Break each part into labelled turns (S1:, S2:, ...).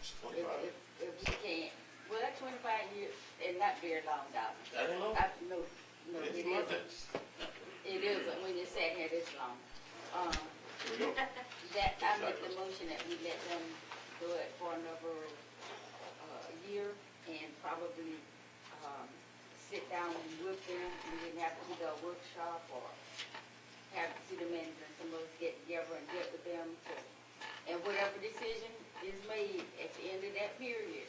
S1: If,
S2: Twenty-five.
S1: if, if we can't, well, that twenty-five years is not very long, dog.
S2: I don't know.
S1: I, no, Uh, no, it
S2: It's
S1: isn't.
S2: nothing.
S1: It isn't when you're sitting here this long. Um,
S2: Here we go.
S1: that, I make the motion that we let them do it for another, uh, year and probably, um, sit down with them and then have either a workshop or have the city manager and some of us get together and get with them to, and whatever decision is made at the end of that period,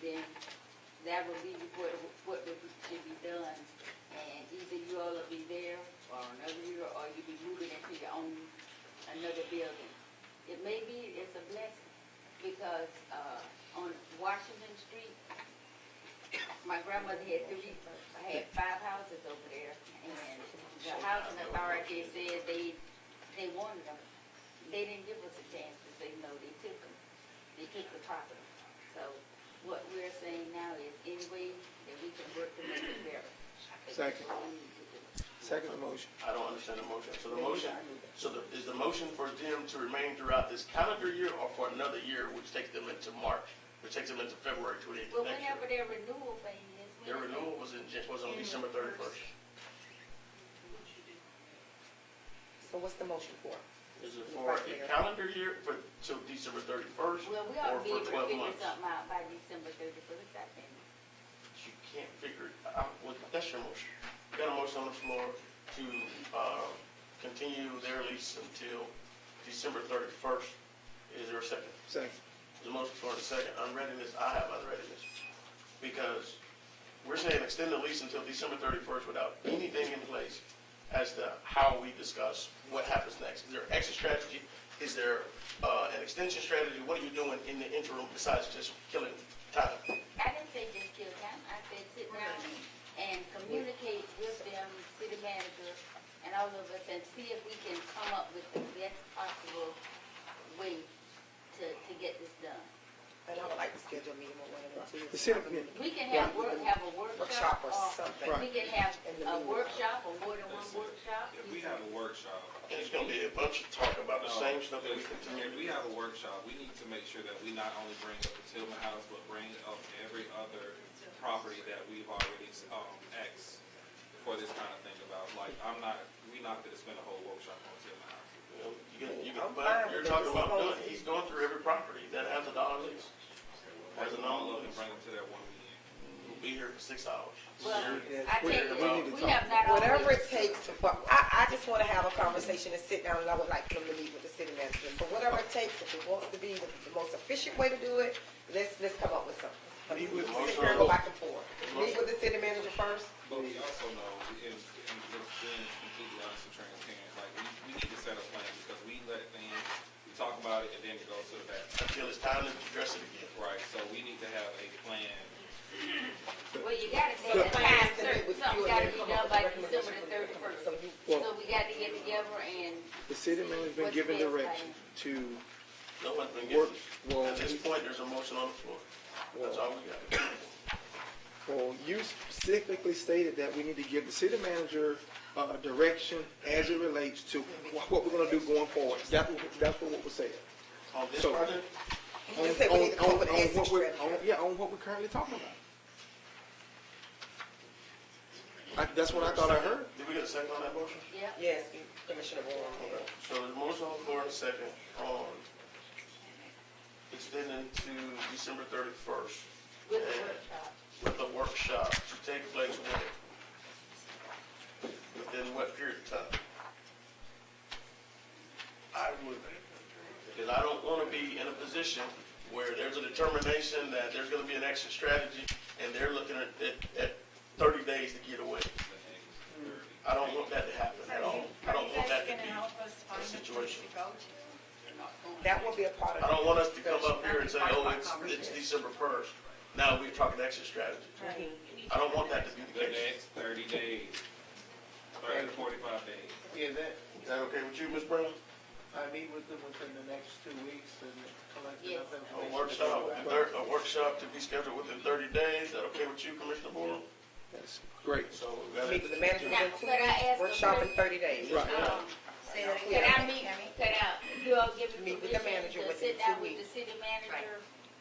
S1: then that will be what, what would be- should be done. And either you all will be there or another year, or you'll be moving into your own, another building. It may be, it's a blessing, because, uh, on Washington Street, my grandmother had three, had five houses over there, and the housing authority said they, they wanted them. They didn't give us a chance to say no, they took them, they took the property. So what we're saying now is any way that we can work to make it better.
S3: Second.
S1: We need to do.
S3: Second motion.
S2: I don't understand the motion. So the
S1: Maybe
S2: motion,
S1: I need
S2: so the, is the motion for them to remain throughout this calendar year or for another year, which takes them into March, which takes them into February twenty-eighth
S1: Well,
S2: next
S1: whenever their
S2: year?
S1: renewal thing is.
S2: Their
S1: whenever-
S2: renewal was in, was on December thirty-first.
S4: So what's the motion for?
S2: Is it for a calendar year for, till December thirty-first
S1: Well, we
S2: or
S1: ought to be
S2: for
S1: able to
S2: twelve
S1: figure
S2: months?
S1: something out by December thirty-first, I think.
S2: You can't figure it out. Well, that's your motion. You got a motion on the floor to, uh, continue their lease until December thirty-first. Is there a second?
S3: Second.
S2: The motion for the second unreadiness, I have unreadiness. Because we're saying extend the lease until December thirty-first without anything in place as to how we discuss what happens next. Is there exit strategy? Is there, uh, an extension strategy? What are you doing in the interim besides just killing time?
S1: I didn't say just kill time, I said sit down and communicate with them, city manager, and all of us, and see if we can come up with the best possible way to, to get this done.
S4: And I would like to schedule a meeting with one of them too.
S3: The city committee.
S1: We can have work, have a workshop,
S4: Workshop
S1: or
S4: or something.
S1: we can have
S4: In the
S1: a
S4: meeting.
S1: workshop, or more than one workshop.
S5: If we have a workshop.
S2: And it's gonna be a bunch of talk about the same stuff that we
S5: If
S2: continue to
S5: we have a workshop, we need to make sure that we not only bring up the Tillman House, but bring up every other property that we've already, um, X for this kind of thing about, like, I'm not, we not gonna spend a whole workshop on Tillman House.
S2: You can, you can, but you're talking about doing, he's going through every property that has a dollar lease. Has a
S5: All
S2: dollar
S5: of them,
S2: lease.
S5: bring them to that one meeting.
S2: We'll be here for six hours.
S1: Well,
S3: Yeah,
S1: I
S3: we-
S1: tell you,
S3: we need to
S1: we
S3: talk.
S1: have not always.
S4: Whatever it takes to, fu- I, I just wanna have a conversation and sit down and I would like them to meet with the city manager. So whatever it takes, if it wants to be the the most efficient way to do it, let's, let's come up with something. But
S2: Meet with
S4: we sit here and go back and forth.
S2: Marshall.
S4: Meet with the city manager first.
S5: But we also know, and, and just being completely honest and transparent, like, we, we need to set a plan because we let things, we talk about it and then it goes to the back.
S2: Until it's time to address it again.
S5: Right, so we need to have a plan
S1: Well, you gotta set
S4: The
S1: a
S4: plan
S1: time
S4: is to meet
S1: certain,
S4: with you
S1: something
S4: and then
S1: gotta be
S4: come
S1: done
S4: up with
S1: by
S4: a recommendation
S1: December the
S4: for them to come
S1: thirty-first.
S4: up with something.
S3: Well-
S1: So we gotta get together and.
S3: The city manager's been given direction to
S2: No one's been
S3: work,
S2: getting
S3: well,
S2: At this point, there's a motion on the floor. That's all we got.
S3: well, you specifically stated that we need to give the city manager, uh, direction as it relates to wh- what we're gonna do going forward. That's what, that's what was said.
S2: On this
S3: So-
S2: project,
S4: You just said we need to come up with an
S3: on
S4: exit
S3: what we're-
S4: strategy.
S3: on- Yeah, on what we're currently talking about. I, that's what I thought I heard.
S2: did we get a second on that motion?
S1: Yeah.
S4: Yes, Commissioner Warren.
S2: Okay. So there's a motion on the floor and a second on extending to December thirty-first
S1: With the workshop.
S2: with a workshop to take place when? Within what period of time? I would, because I don't want to be in a position where there's a determination that there's going to be an exit strategy and they're looking at, at, at thirty days to get away. I don't want that to happen at all. I don't want that to be.
S6: a
S2: situation.
S4: That will be a part of.
S2: I don't want us to come
S4: discussion.
S2: up here and say, oh, it's, it's December first. Now we're talking exit strategy.
S6: Right.
S2: I don't want that to be the
S5: the
S2: case.
S5: next thirty days, thirty to forty-five days.
S7: Yeah, that,
S2: Is that okay with you, Ms. Brown?
S7: I meet with them within the next two weeks and collect
S1: Yes.
S7: enough information.
S2: A workshop, a thir- a workshop to be scheduled within thirty days, is that okay with you, Commissioner Boyle?
S3: That's great.
S2: So we got
S4: Meet with the
S2: it.
S4: manager within two
S1: Now, could I ask
S4: weeks,
S1: the
S4: workshop in
S1: manager-
S4: thirty days.
S3: Right.
S1: Um,
S6: Say that
S1: Could
S6: again.
S1: I meet, could I, you all give me
S4: Meet with the
S1: permission
S4: manager
S1: to
S4: within
S1: sit
S4: two
S1: down with the
S4: weeks.
S1: city manager